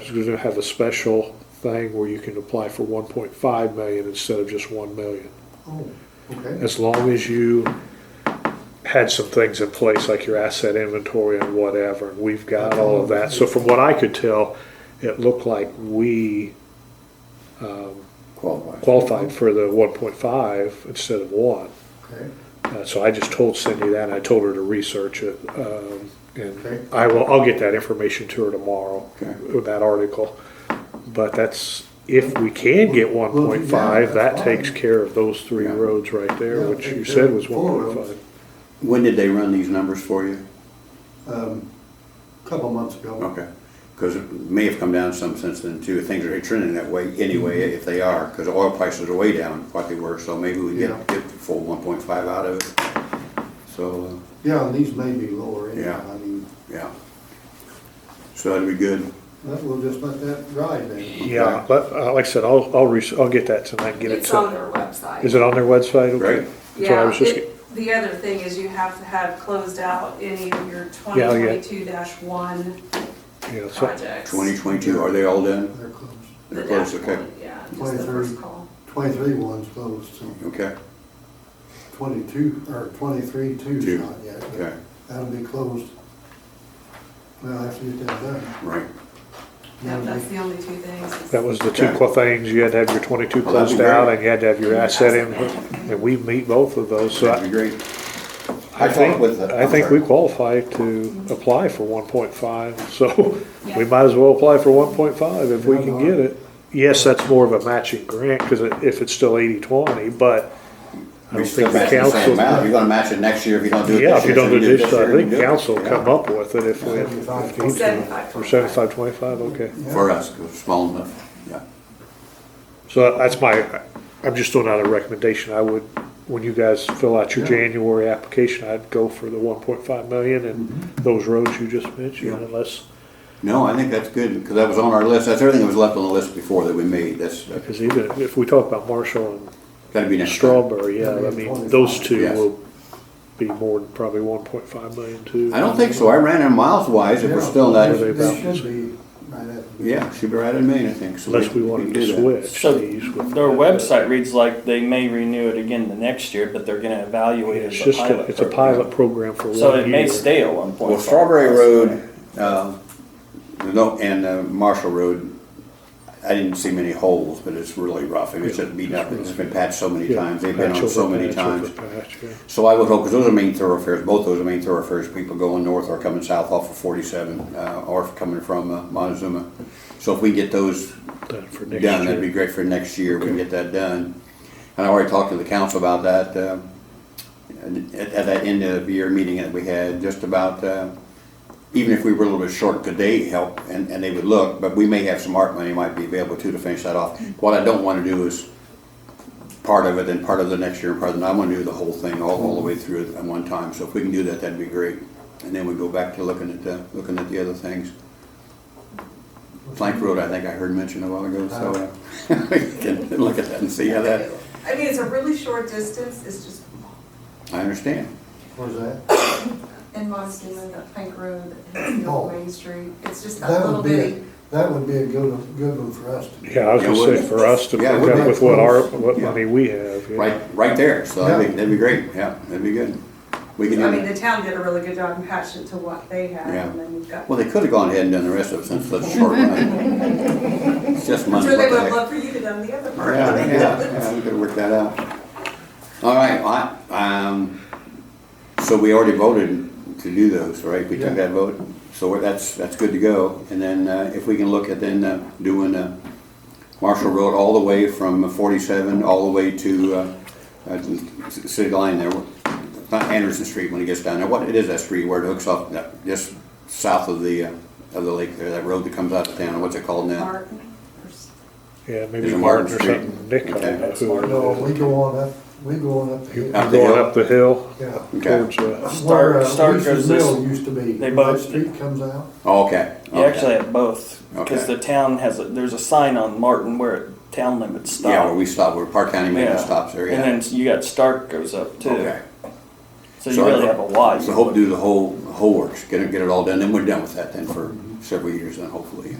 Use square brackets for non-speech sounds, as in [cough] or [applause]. It's gonna have a special thing where you can apply for one point five million instead of just one million. Oh, okay. As long as you had some things in place, like your asset inventory and whatever, and we've got all of that. So from what I could tell, it looked like we Qualified. qualified for the one point five instead of one. Okay, Uh, so I just told Cindy that, and I told her to research it, um, Okay. and I will, I'll get that information to her tomorrow, Okay. with that article. But that's, if we can get one Well, if point you five, can, that's that takes fine. care of those three Yeah. roads right there, Yeah, which take you care said of was four one point roads. five. When did they run these numbers for you? um, couple months ago. Okay, because it may have come down some since then too. Things are trending that way anyway, Mm-hmm. if they are, because oil prices are way down like they were, so maybe we Yeah. get, get the full one point five out of it. So, Yeah, and these may be lower anyhow, Yeah. I mean, uh, yeah. So that'd be good. that- we'll just let that ride then. Yeah, but, uh, like I said, I'll, I'll res, I'll get that tonight, and get it It's on to, their website. is it on their website? Okay. Right. That's what I Yeah, was just, it- the other thing is you have to have closed out any of your Yeah, yeah. 2022-1 get- yeah, so, projects. Twenty twenty-two, are they all done? They're closed. The They're close, dashboard, okay, Yeah, just the 23. first call. Twenty-three one's closed, so okay, twenty-two, or twenty-three two's Two. not yet. but okay, That'll be closed. Well, after you get that done. right. Yeah, That'll that's be- the only two things. that was the two Okay. qu- things, you had to have your twenty-two Well, that'd be closed out, great. and you had to have your Your asset asset. in, and we meet both of those, so. I- That'd be great. I talked think, with the- I I'm think sorry. we qualify to apply for one point five, [laughs] so Yeah. we might as well apply for one point five if we Yeah, can no. get it. Yes, that's more of a matching grant, cause it- if it's still eighty twenty, but I We don't still think the match the same council. amount. You're gonna match it next year if you don't do it this year. Yeah, if you don't so do this, year, I you think do it. council will Yeah. come up with it if we. Seventy-five. if we need to. 75. Or seventy-five, twenty-five, okay. For us, 'cause it's small enough, yeah. So that's my, I'm just throwing out a recommendation. I would, when you guys fill out your Yeah. January application, I'd go for the one point five million and those roads you just mentioned Mm-hmm. Yeah. unless, No, I think that's good, because that was on our list, that's everything that was left on the list before that we made, that's, that's because even if we talk about Marshall gotta be and next time. Strawberry, yeah, I mean, 1.5. those two Yes. will be more than probably one point five million too. I don't think so, I ran in miles wise, if we're Yeah, still Were not, they- They should be right at. yeah, should be right in Maine, I think, so. Unless we wanted can to do that. switch So these with. their website reads like they may renew it again the next year, but they're gonna evaluate it It's as a just, a- pilot. it's a program. pilot program for one year. So it may stay at one point. Well, Strawberry Road, um, no, and uh, Marshall Road, I didn't see many holes, but it's really rough, it's just beat up, it's been patched so many Yeah, times, they've been patch on so over many patch over times. patch, yeah. So I would hope, because those are main thoroughfares, both those are main thoroughfares, people going north or coming south off of 47, uh, or coming from uh, Montezuma. So if we can get those Done for next done, that'd year. be great for next year, we can get that done. And I already talked to the council about that, um, at, at that end of the year meeting that we had, just about, uh, even if we were a little bit short, could they help, and, and they would look, but we may have some art money might be available too to finish that off. What I don't wanna do is part of it, then part of the next year, and part of, the- I wanna do the whole thing, all, all the way through at one time, so if we can do that, that'd be great. And then we go back to looking at, uh, looking at the other things. Plank Road, I think I heard mentioned a while ago, so uh, [laughs] we can look at that and see how that, I mean, it's a really short distance, it's just I understand. Where's that? in Montezuma, that Plank Road, and the Oh. old Main Street, it's just that That little would be, bitty. a- that would be a good, one- good one for us to do. Yeah, I was Yeah, gonna say wouldn't it? for us to pick Yeah, wouldn't up it? with what our, what Yeah. money we have. yeah. Right, right there, so I think that'd be great, yeah, that'd be good. We can I mean, do the it. town did a really good job in patching it to what they had, Yeah. and then you've got. Well, they could have gone ahead and done the rest of it since it's such a short run. It's just I'm money. sure they what the would have heck. loved for you to done the other part. Yeah, yeah, yeah, we could work that out. All right, well, I, um, so we already voted to do those, right? We took Yeah. that vote, so we're- that's, that's good to go. And then, uh, if we can look at then, uh, doing, uh, Marshall Road all the way from forty-seven, all the way to, uh, uh, c- city line there, not Anderson Street when it gets down there, what, it is that street where it hooks up, that- just south of the, uh, of the lake there, that road that comes out of town, what's it called now? Martin, or s- Yeah, maybe Is it Martin Martin or Street? something, Nick, I Okay. don't know who it No, is. we go on up, we go on up. the hill. Up the Going hill. up the hill Yeah. Okay. towards, uh, Where, uh, Stark, Stark Reese's goes Mill this, used to be. they where both- That street comes out. Oh, okay. You okay. actually have both, because Okay. the town has, a- there's a sign on Martin where town limits stop. Yeah, where we stop, where Park County Yeah. maintenance stops there, yeah. And then you got Stark goes up too, Okay. so you So I- really have a lot. So hope to do the whole, the whole works, get it, get it all done, then we're done with that then for several years then hopefully.